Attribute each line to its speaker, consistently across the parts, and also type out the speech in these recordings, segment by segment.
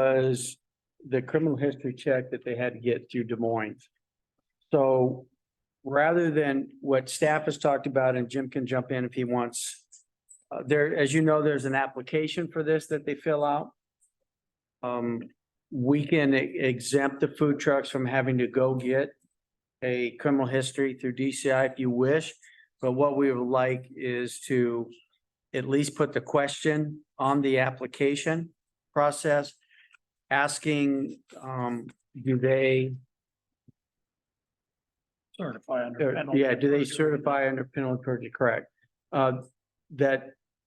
Speaker 1: was the criminal history check that they had to get through Des Moines. So rather than what staff has talked about, and Jim can jump in if he wants. Uh, there, as you know, there's an application for this that they fill out. Um, we can e- exempt the food trucks from having to go get a criminal history through DCI if you wish. But what we would like is to at least put the question on the application process, asking, um, do they,
Speaker 2: Certify under.
Speaker 1: or,
Speaker 2: penalty
Speaker 1: yeah, do they
Speaker 2: of perjury.
Speaker 1: certify under penalty of perjury, correct? Uh, that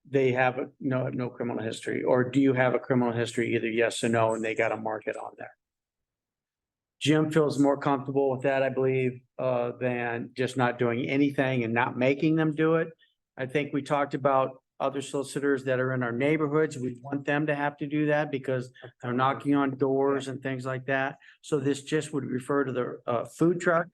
Speaker 1: they have a- no, no criminal history, or do you have a criminal history, either yes or no, and they got a market on there? Jim feels more comfortable with that, I believe, uh, than just not doing anything and not making them do it. I think we talked about other solicitors that are in our neighborhoods. We want them to have to do that because they're knocking on doors and things like that. So this just would refer to the uh food truck.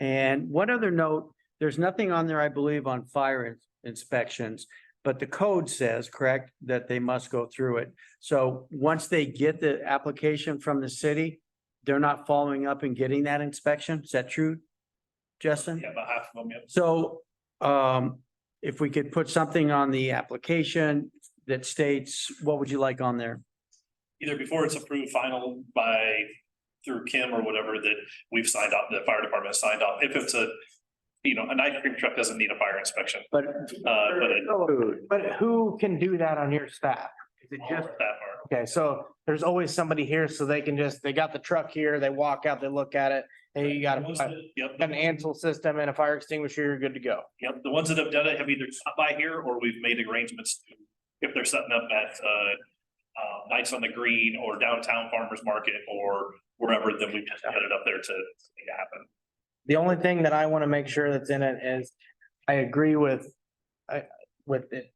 Speaker 1: And one other note, there's nothing on there, I believe, on fire ins- inspections, but the code says, correct, that they must go through it. So once they get the application from the city, they're not following up and getting that inspection. Is that true? Justin?
Speaker 2: Yeah, about half of them, yeah.
Speaker 1: So um, if we could put something on the application that states, what would you like on there?
Speaker 2: Either before it's approved final by, through Kim or whatever that we've signed off, the fire department has signed off. If it's a, you know, an ice cream truck doesn't need a fire inspection,
Speaker 1: But
Speaker 2: uh, but it-
Speaker 3: But who can do that on your staff? Is it
Speaker 2: all
Speaker 3: just,
Speaker 2: of that part.
Speaker 3: okay, so there's always somebody here, so they can just, they got the truck here, they walk out, they look at it. Hey, you got a-
Speaker 2: Most of
Speaker 3: got
Speaker 2: it, Yep.
Speaker 3: an Ansel system and a fire extinguisher, you're good to go.
Speaker 2: Yep, the ones that have done it have either stopped by here or we've made arrangements. to- If they're setting up at uh, uh, Nights on the Green or downtown farmer's market or wherever, then we've just headed up there to make it happen.
Speaker 3: The only thing that I want to make sure that's in it is, I agree with, I, with it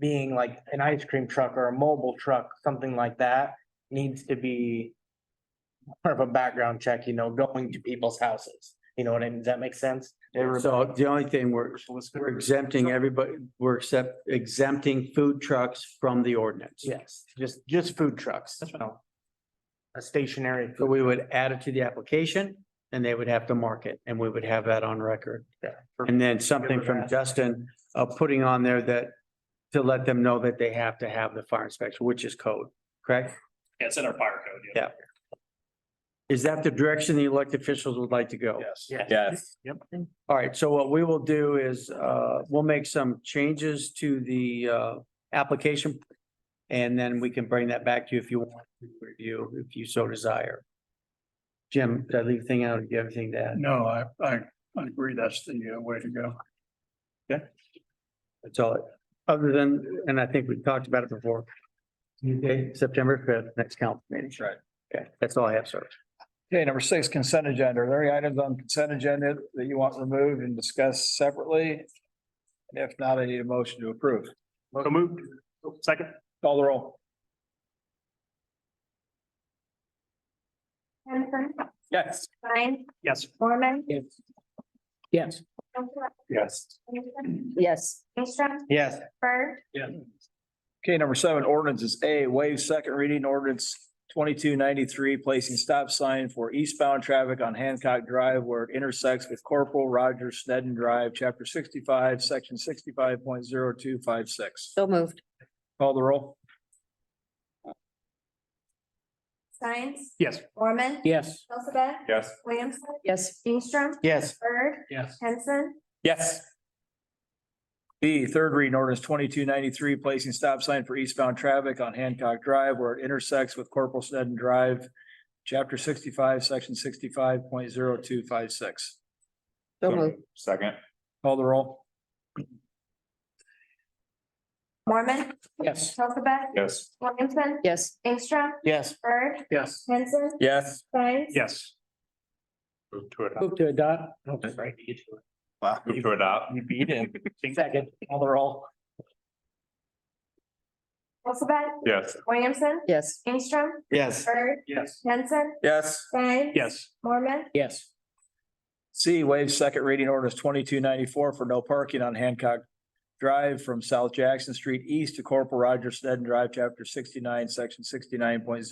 Speaker 3: being like an ice cream truck or a mobile truck, something like that, needs to be more of a background check, you know, going to people's houses. You know what I mean? Does that make sense?
Speaker 1: So the only thing we're, we're exempting everybody, we're except exempting food trucks from the ordinance.
Speaker 3: Yes, just, just food trucks.
Speaker 2: That's fine.
Speaker 3: so. A stationary.
Speaker 1: So
Speaker 3: food-
Speaker 1: we would add it to the application and they would have to mark it and we would have that on record.
Speaker 3: Yeah.
Speaker 1: And then something from Justin, uh, putting on there that to let them know that they have to have the fire inspection, which is code, correct?
Speaker 2: Yeah, It's in our fire code.
Speaker 1: Yeah. Is that the direction the elected officials would like to go?
Speaker 2: Yes.
Speaker 3: Yes.
Speaker 4: Yes.
Speaker 1: All right, so what we will do is, uh, we'll make some changes to the, uh, application. And then we can bring that back to you if you want to review, if you so desire. Jim, did I leave anything out? Do you have anything to add?
Speaker 5: No, I, I, I agree. That's the uh, way to go.
Speaker 1: That's all. Other than, and I think we've talked about it before. Okay, September fifth, next council meeting.
Speaker 5: right.
Speaker 1: Okay, that's all I have, sir.
Speaker 5: Okay, number six, consent agenda. Are there any items on consent agenda that you want removed and discussed separately? And if not, I need a motion to approve.
Speaker 2: So moved. Second.
Speaker 5: Call the roll.
Speaker 6: Henson,
Speaker 5: Yes.
Speaker 6: Stein,
Speaker 2: Yes.
Speaker 6: Mormon.
Speaker 1: Yes.
Speaker 6: Yes.
Speaker 5: Yes.
Speaker 6: Yes.
Speaker 3: Yes,
Speaker 6: Bird,
Speaker 5: Okay, number seven, ordinances. A, waive second reading ordinance twenty-two ninety-three, placing stop sign for eastbound traffic on Hancock Drive where it intersects with Corporal Roger Sneddon Drive, chapter sixty-five, section sixty-five point zero two five six.
Speaker 7: So moved.
Speaker 5: Call the roll.
Speaker 6: Science.
Speaker 2: Yes.
Speaker 6: Mormon.
Speaker 1: Yes.
Speaker 6: Elizabeth.
Speaker 4: Yes.
Speaker 6: Williamson.
Speaker 7: Yes,
Speaker 6: Instrom.
Speaker 3: yes,
Speaker 6: Bird.
Speaker 2: Yes.
Speaker 6: Henson.
Speaker 4: Yes.
Speaker 5: B, third reading ordinance twenty-two ninety-three, placing stop sign for eastbound traffic on Hancock Drive where it intersects with Corporal Sneddon Drive, chapter sixty-five, section sixty-five point zero two five six.
Speaker 7: so moved.
Speaker 4: Second.
Speaker 5: Call the roll.
Speaker 6: Mormon.
Speaker 3: Yes.
Speaker 6: Elizabeth.
Speaker 4: Yes.
Speaker 6: Williamson.
Speaker 7: Yes,
Speaker 6: Instrom.
Speaker 3: yes,
Speaker 6: Bird.
Speaker 2: Yes.
Speaker 6: Henson.
Speaker 4: Yes.
Speaker 6: Science.
Speaker 2: Yes.
Speaker 4: Move to adopt.
Speaker 3: move to adopt.
Speaker 4: Wow. Move to adopt.
Speaker 3: You beat him. Second, call the roll.
Speaker 6: Elizabeth.
Speaker 4: Yes.
Speaker 6: Williamson.
Speaker 7: yes,
Speaker 6: Instrom.
Speaker 3: Yes,
Speaker 6: Bird.
Speaker 2: Yes.
Speaker 6: Henson.
Speaker 4: Yes.
Speaker 6: Stein.
Speaker 2: Yes.
Speaker 6: Mormon.
Speaker 3: yes,
Speaker 5: C, waive second reading orders twenty-two ninety-four for no parking on Hancock Drive from South Jackson Street East to Corporal Roger Sneddon Drive, chapter sixty-nine, section sixty-nine point